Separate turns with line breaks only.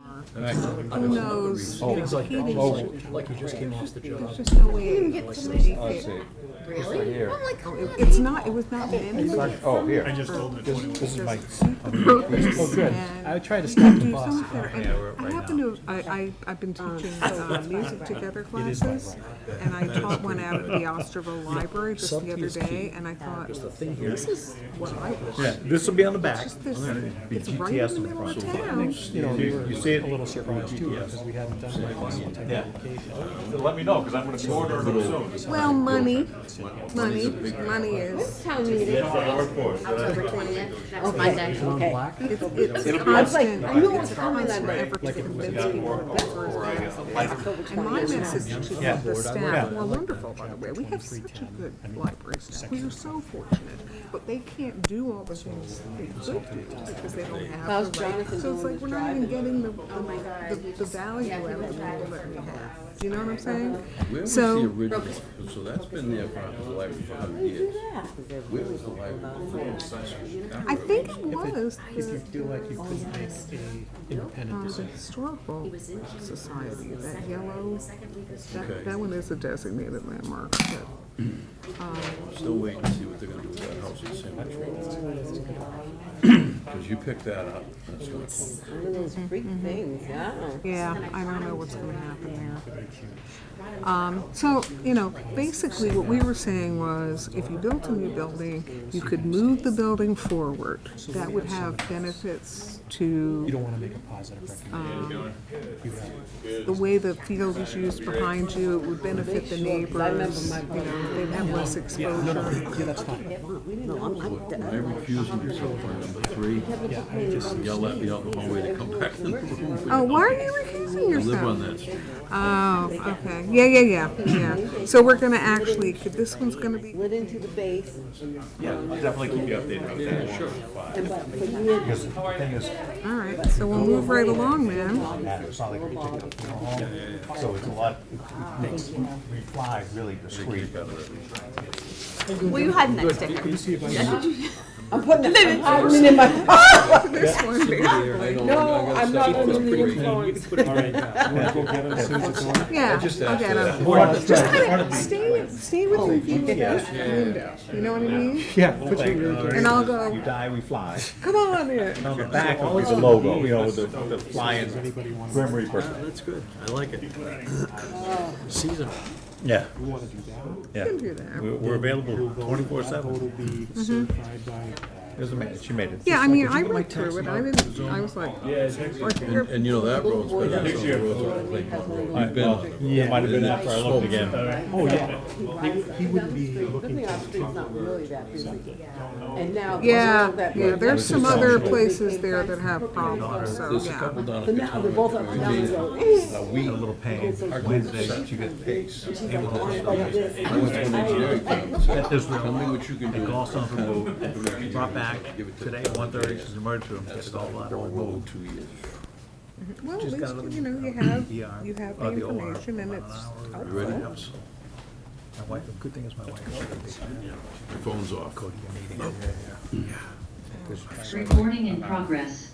not.
knows,
Oh.
you know,
Things like,
he didn't-
oh, like you just came off the job.
There's just no way.
You can get somebody
I
here.
see. This right
Really?
here.
Oh, my God.
It's not, it was not managed.
Oh,
I
here.
just told him.
This, this is my,
Oh, good.
And
I would try to
You
stop
can
the
do
boss.
something better. And I happen to, I, I, I've been teaching uh, music together classes, and I taught one out at the Osterville Library just the
subtlety
other
is
day,
key.
and I thought,
The thing here,
this is what I wish.
Yeah, this will be on the back.
Just this- It's right in the middle of town.
you know, we
You-
were
you see it
a little surprised too, because we hadn't done like this type of application.
Let me know, because I'm gonna order them soon.
Well, money, money, money is,
Town meeting, October twentieth, that's Monday.
On black,
it's, it's constant. I don't want to ever to convince people that this is And my message to the staff, who are wonderful, by the way, we have such a good library staff, we are so fortunate, but they can't do all the things they could do, because they don't have the right. So it's like, we're not even getting the, the, the value out of the people that we have, do you know what I'm
where
saying?
was the
So,
original, so that's been there for the library for a hundred years. Where was the library before?
I think it was
if you
the,
feel like you could make a independent
um, the
decision.
historical society, that yellow,
Okay.
that, that one is a designated landmark, but.
Still waiting to see what they're gonna do with that house in Cemetery. Cause you picked that up, and it's gonna close.
One of those freak things, wow.
Yeah, I don't know what's gonna happen there. Um, so, you know, basically what we were saying was, if you built a new building, you could move the building forward. That would have benefits
You
to
don't wanna make a positive recommendation. You have,
the way the field is used behind you, it would benefit the neighbors, you know, they'd have less exposure.
yeah, that's fine.
I refuse myself on number three.
Yeah, I would just,
Yell at me out the hallway to come back in the room.
Oh, why are you recusing
I
yourself?
live on that street.
Oh, okay, yeah, yeah, yeah, yeah. So we're gonna actually, this one's gonna be.
Lit into the base,
Yeah, I'll definitely keep you updated. Yeah, sure.
and but for years,
Because the thing is,
All right, so we'll move right along then.
matter, it's not like we pick it up from home, so it's a lot, it it makes, we fly really discreet.
Will you hide in that sticker?
I'm putting it, I'm hiding it in my,
This one,
no, I'm not under the influence.
yeah,
Just
I'll get
after that.
'em. Kind of Stay, stay with the people that's the window, you know what I mean?
yeah, put your
And I'll go,
You die, we fly.
come on in.
On the back will be the logo, you know, the, the flying Grim Reaper.
That's good. I like it. Seasonal.
Yeah,
You wanna do that,
yeah.
Can do that.
We're, we're available twenty-four seven.
it'll be certified by
There's a man, she made it.
Yeah, I mean, I went through it, I didn't, I was like, oh, like,
And,
you're-
and you know, that road's been on some roads on Clay Pond Road. You've been on it.
It might have been after I looked again.
Oh, yeah. He wouldn't be
Good thing our street's not really that busy. And now.
yeah,
that-
yeah, there's some other places there that have problems, so,
There's a
yeah.
couple down at
But now they're
Katonah
both up and down the
where
road.
they- A week,
A little pain, Wednesday, she got pace.
"Oh,
I went to an engineering conference.
At this
Tell me what you can do.
They called something, moved, brought back today at one thirty, she's emerged room, it's all blood, all moved.
Two years.
Well, at
Just got a
least,
little-
you know, you have,
ER,
you have the
or the OR,
information and
about
it's
an hour,
out
You ready?
there.
My
My wife, the good thing is my wife. is a big
phone's off.
meeting.
Recording in progress.